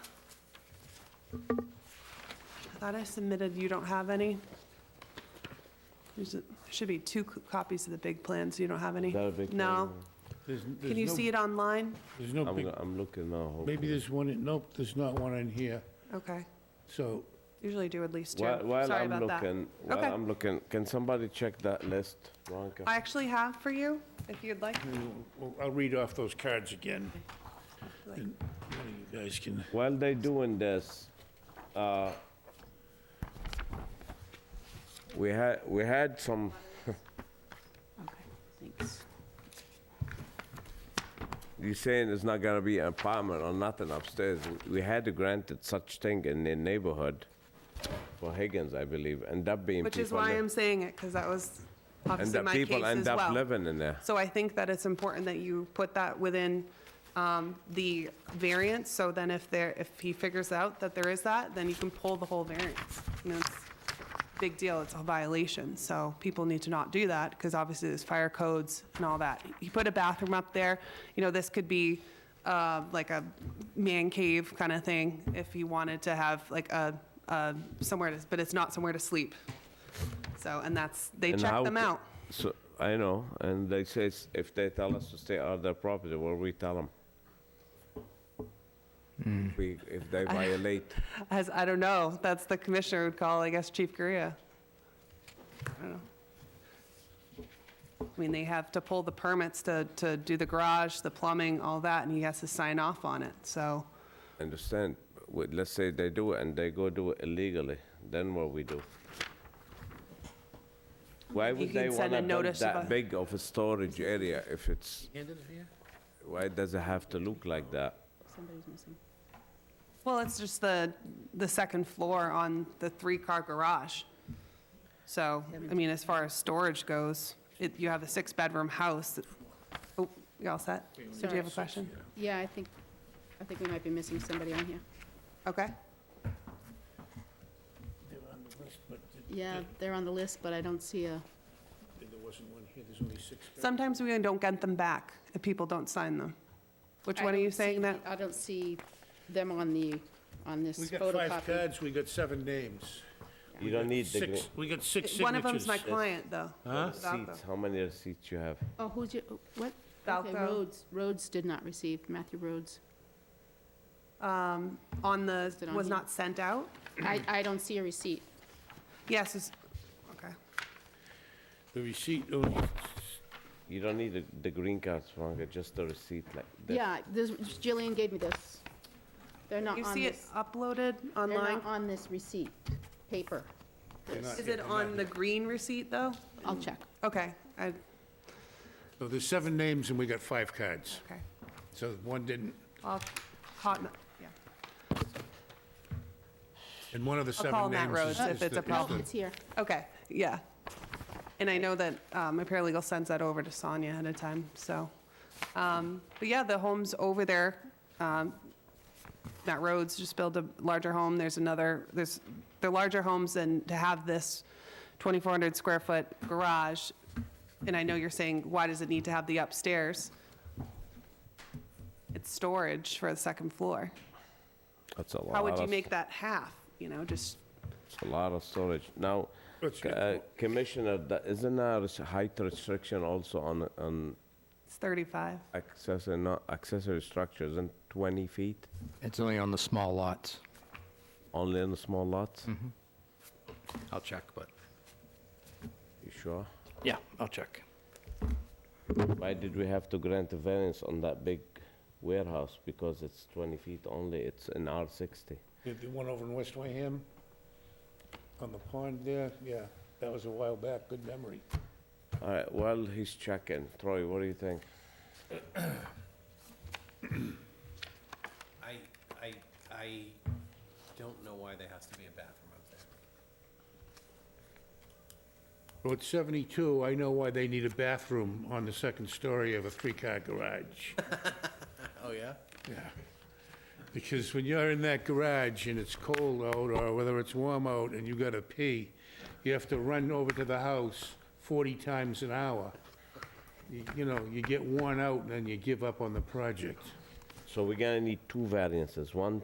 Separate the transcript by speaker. Speaker 1: I thought I submitted, you don't have any? There's, a- should be two co- copies of the big plan, so you don't have any?
Speaker 2: Is that a big
Speaker 1: No.
Speaker 2: thing?
Speaker 3: There's, n-
Speaker 1: Can you
Speaker 3: there's
Speaker 1: see
Speaker 3: no,
Speaker 1: it online?
Speaker 3: there's no
Speaker 2: I'm,
Speaker 3: big,
Speaker 2: go- I'm looking now.
Speaker 3: maybe
Speaker 2: hopefully.
Speaker 3: there's one, in- nope, there's not one in here.
Speaker 1: Okay,
Speaker 3: So
Speaker 1: usually do at least two.
Speaker 2: While, while
Speaker 1: Sorry
Speaker 2: I'm
Speaker 1: about that.
Speaker 2: looking, while
Speaker 1: Okay.
Speaker 2: I'm looking, can somebody check that list, Veronica?
Speaker 1: I actually have for you, if you'd like.
Speaker 3: Well, I'll read off those cards again.
Speaker 1: Like-
Speaker 3: And one of You guys can,
Speaker 2: While they doing this, uh, we had, we had some,
Speaker 4: Thanks.
Speaker 2: you saying it's not gonna be an apartment or nothing upstairs. We- We had granted such thing in the neighborhood for Higgins, I believe, end up being
Speaker 1: Which
Speaker 2: people.
Speaker 1: is why
Speaker 2: li-
Speaker 1: I'm saying it, because that was
Speaker 2: And
Speaker 1: obviously
Speaker 2: that
Speaker 1: my case
Speaker 2: people
Speaker 1: as
Speaker 2: end up
Speaker 1: well.
Speaker 2: living in there.
Speaker 1: So I think that it's important that you put that within um, the variance, so then if there, if he figures out that there is that, then you can pull the whole variance. You know, it's a big deal, it's a violation, so people need to not do that, because obviously there's fire codes and all that. He put a bathroom up there, you know, this could be uh, like a man cave kind of thing, if you wanted to have like a, a- somewhere to, but it's not somewhere to sleep. So, and that's, they
Speaker 2: And
Speaker 1: check
Speaker 2: how
Speaker 1: them
Speaker 2: c-
Speaker 1: out.
Speaker 2: So, I know, and they says if they tell us to stay out of their property, what we tell them? We, if they violate,
Speaker 1: As, I don't know, that's the commissioner would call, I guess, Chief Korea. I don't know. I mean, they have to pull the permits to, to do the garage, the plumbing, all that, and he has to sign off on it, so.
Speaker 2: understand, Wait, let's say they do it and they go do it illegally, then what we do? Why
Speaker 1: You
Speaker 2: would
Speaker 1: can
Speaker 2: they
Speaker 1: send a
Speaker 2: wanna build
Speaker 1: notice of
Speaker 2: that
Speaker 1: a-
Speaker 2: big of a storage area if it's, why does it have to look like that?
Speaker 4: Somebody's missing.
Speaker 1: Well, it's just the, the second floor on the three-car garage. So, I mean, as far as storage goes, it, you have a six-bedroom house. Oh, you all set? So do you have a question?
Speaker 4: Yeah, I think, I think we might be missing somebody on here.
Speaker 1: Okay.
Speaker 3: they're on the list, but th-
Speaker 4: Yeah, they're on the list, but I don't see a,
Speaker 3: there wasn't one here, there's only six. cards.
Speaker 1: Sometimes we don't get them back if people don't sign them. Which
Speaker 4: I
Speaker 1: one are you
Speaker 4: don't see
Speaker 1: saying that?
Speaker 4: the- I don't see them on the, on this
Speaker 3: We got five
Speaker 4: photocopy.
Speaker 3: cards, we got seven names.
Speaker 2: You don't need the
Speaker 3: Six, we got six signatures.
Speaker 1: One of them's my client, though.
Speaker 2: gr-
Speaker 1: Without
Speaker 2: seats,
Speaker 1: the-
Speaker 2: how many seats you have?
Speaker 4: Oh, who's your, what?
Speaker 1: Falco.
Speaker 4: Okay, Rhodes, Rhodes did not receive, Matthew Rhodes.
Speaker 1: Um, on the,
Speaker 4: Listed on
Speaker 1: was
Speaker 4: here.
Speaker 1: not sent out?
Speaker 4: I, I don't see a receipt.
Speaker 1: Yes, it's, okay.
Speaker 3: The receipt, oh,
Speaker 2: You don't need the, the green cards, Veronica, just the receipt like this.
Speaker 4: Yeah, this, Jillian gave me this. They're not
Speaker 1: You
Speaker 4: on
Speaker 1: see it
Speaker 4: this,
Speaker 1: uploaded
Speaker 4: they're
Speaker 1: online?
Speaker 4: not on this receipt, paper.
Speaker 3: they're not
Speaker 1: Is
Speaker 3: here,
Speaker 1: it
Speaker 3: they're not
Speaker 1: on
Speaker 3: here.
Speaker 1: the green receipt, though?
Speaker 4: I'll check.
Speaker 1: Okay, I,
Speaker 3: So there's seven names and we got five cards.
Speaker 1: okay.
Speaker 3: So one didn't,
Speaker 1: I'll, hot, yeah.
Speaker 3: and one of the seven
Speaker 1: call Matt
Speaker 3: names
Speaker 1: Rhodes
Speaker 3: is-
Speaker 1: if
Speaker 3: is the-
Speaker 1: it's a
Speaker 3: is the-
Speaker 4: Oh,
Speaker 1: problem.
Speaker 4: it's here.
Speaker 1: Okay, yeah. And I know that um, my paralegal sends that over to Sonia ahead of time, so. um, But yeah, the homes over there, um, Matt Rhodes just built a larger home. There's another, there's, they're larger homes and to have this 2,400 square foot garage, and I know you're saying, why does it need to have the upstairs? It's storage for the second floor.
Speaker 2: That's a lot.
Speaker 1: How would you
Speaker 2: of-
Speaker 1: make that half, you know, just,
Speaker 2: It's a lot of storage. Now,
Speaker 3: Let's
Speaker 2: c-
Speaker 3: get
Speaker 2: uh, Commissioner, tha- isn't there a res- height restriction also on, on
Speaker 1: it's 35.
Speaker 2: accessory, not accessory structures, and 20 feet?
Speaker 5: It's only on the small lots.
Speaker 2: Only in the small lots?
Speaker 5: I'll check, but.
Speaker 2: You sure?
Speaker 5: Yeah, I'll check.
Speaker 2: Why did we have to grant a variance on that big warehouse? Because it's 20 feet only, it's an R60.
Speaker 3: The the one over in West Wareham, on the pond there, yeah, that was a while back, good memory.
Speaker 2: All right, well, he's checking. Troy, what do you think?
Speaker 6: I, I, I don't know why there has to be a bathroom up there.
Speaker 3: Well, at 72, I know why they need a bathroom on the second story of a three-car garage.
Speaker 6: Oh, yeah?
Speaker 3: Yeah. Because when you're in that garage and it's cold out, or whether it's warm out, and you gotta pee, you have to run over to the house 40 times an hour. You you know, you get worn out, and then you give up on the project.
Speaker 2: So we're gonna need two variances, one